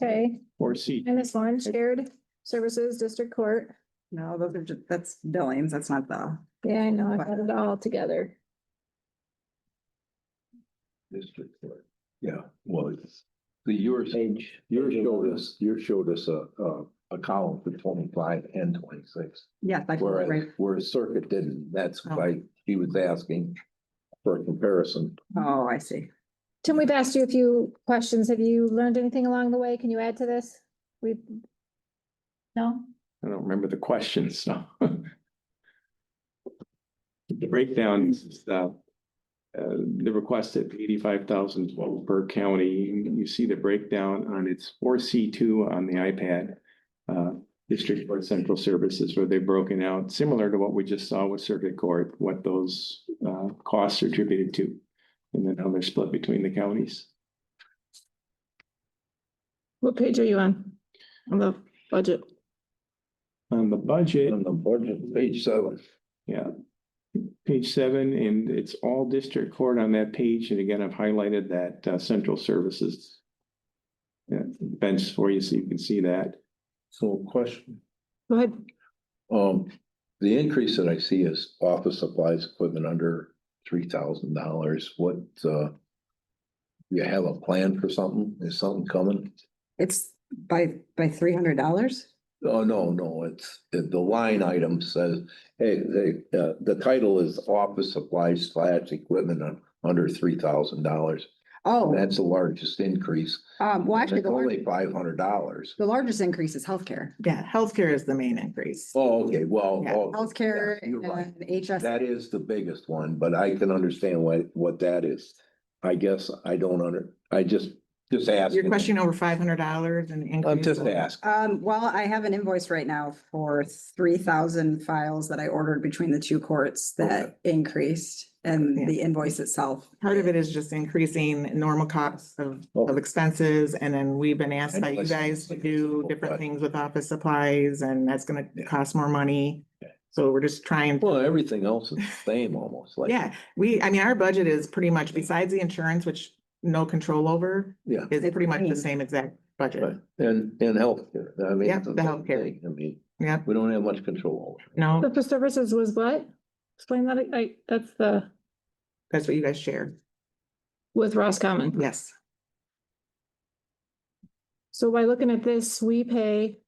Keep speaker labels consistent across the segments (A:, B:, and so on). A: Okay,
B: Four C.
A: minus one, shared services, district court.
C: No, those are just, that's billings, that's not the.
A: Yeah, I know, I got it all together.
D: District Court. Yeah, well, it's, the yours, yours showed us, yours showed us a, a, a column for twenty-five and twenty-six.
C: Yeah, that's
D: Whereas,
C: right.
D: whereas Circuit didn't, that's
E: Oh.
D: why he was asking for a comparison.
C: Oh, I see.
A: Tim, we've asked you a few questions. Have you learned anything along the way? Can you add to this? We. No?
B: I don't remember the question, so. The breakdown is, uh, uh, the request at eighty-five thousand twelve per county, You- you see the breakdown on its four C two on the iPad. Uh, District Court Central Services where they've broken out, similar to what we just saw with Circuit Court, what those, uh, costs are attributed to. And then how they're split between the counties.
E: What page are you on? On the budget?
B: On the budget.
D: On the budget, page seven.
B: Yeah. Page seven, and it's all district court on that page, and again, I've highlighted that uh, central services. Yeah, bench for you, so you can see that.
D: So question.
E: Go ahead.
D: Um, the increase that I see is office supplies equipment under three thousand dollars. What, uh, you have a plan for something? Is something coming?
C: It's by, by three hundred dollars?
D: Oh, no, no, it's, the, the line item says, hey, the, uh, the title is office supplies slash equipment on under three thousand dollars.
C: Oh,
D: That's the largest increase.
C: um, well, actually,
D: It's
C: the largest,
D: only five hundred dollars.
C: the largest increase is healthcare.
E: Yeah, healthcare is the main increase.
D: Oh, okay, well,
E: Yeah,
D: oh,
C: Healthcare
D: yeah, you're right.
C: and HS.
D: That is the biggest one, but I can understand what, what that is. I guess I don't under, I just, just ask.
E: Your question over five hundred dollars and. increase
D: I'm just
E: of-
D: asking.
C: Um, well, I have an invoice right now for three thousand files that I ordered between the two courts that increased
E: Yeah.
C: and the invoice itself.
E: Part of it is just increasing normal costs of, of expenses, and then we've been asked by you guys to do different things with office supplies, and that's gonna cost more money. So we're just trying,
D: Well, everything else is the same almost, like.
E: yeah, we, I mean, our budget is pretty much, besides the insurance, which no control over,
D: Yeah.
E: is
C: It's
E: pretty much the
C: clean.
E: same exact budget.
D: Right, and, and healthcare, I mean.
E: Yeah,
D: it's
E: the
D: same
E: healthcare.
D: thing. I mean,
E: Yep,
D: we don't have much control over. it.
E: no,
F: But the services was what? Explain that, I- I, that's the,
E: that's what you guys shared,
F: with Roscommon.
E: yes.
F: So by looking at this, we pay,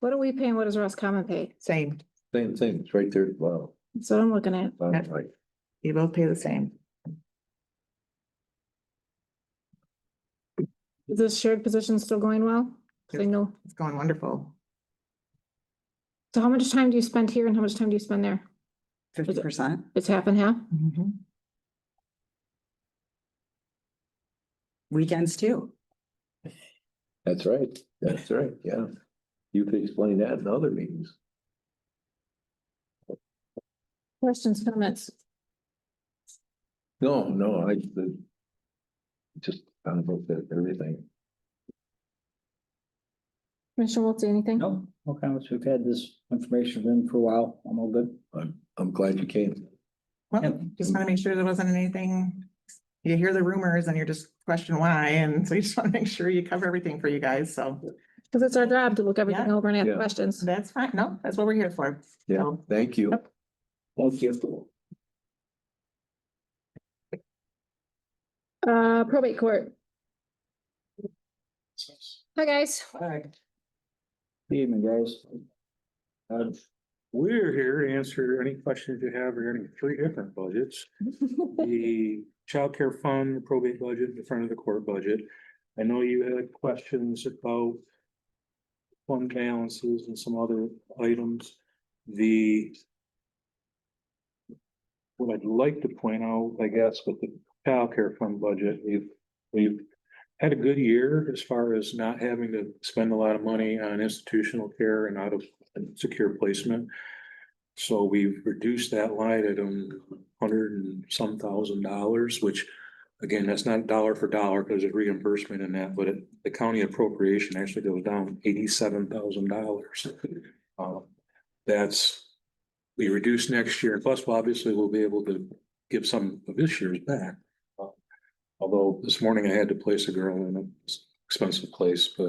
F: what do we pay and what does Roscommon pay?
E: Same,
D: Same thing, it's right there, wow.
F: That's what I'm looking at.
D: that's right.
E: you both pay the same.
F: Is this shared position still going well? 'Cause I know,
E: It's going wonderful.
F: so how much time do you spend here and how much time do you spend there?
C: Fifty percent.
F: It's half and half?
C: Weekends too.
D: That's right, that's right, yeah. You could explain that in other meetings.
F: Questions, comments?
D: No, no, I, the- just kind of looked at everything.
F: Commissioner Wiltie, anything?
G: No, no comments. We've had this information in for a while. I'm all good.
D: I'm, I'm glad you came.
E: Well,
G: Yep.
E: just want to make sure there wasn't anything, you hear the rumors and you're just questioning why, and so you just want to make sure you cover everything for you guys, so
F: Because it's our job to look everything
E: Yeah.
F: over and
D: Yeah.
F: ask questions.
E: that's fine, no, that's what we're here for.
D: Yeah.
E: So,
D: Thank you.
G: Thank you.
F: Uh, probate court. Hi, guys.
G: Hi. Good evening, guys. Um,
H: We're here to answer any questions you have regarding three different budgets. The childcare fund, the probate budget, the front of the court budget. I know you had questions about fund balances and some other items. The what I'd like to point out, I guess, with the childcare fund budget, we've, we've had a good year as far as not having to spend a lot of money on institutional care and out of secure placement. So we've reduced that line item hundred and some thousand dollars, which again, that's not dollar for dollar because there's reimbursement in that, but it- the county appropriation actually goes down eighty-seven thousand dollars. Um, That's, we reduce next year, plus well, obviously we'll be able to give Uh, some of this year's back. Although this morning I had to place a girl in a expensive place, but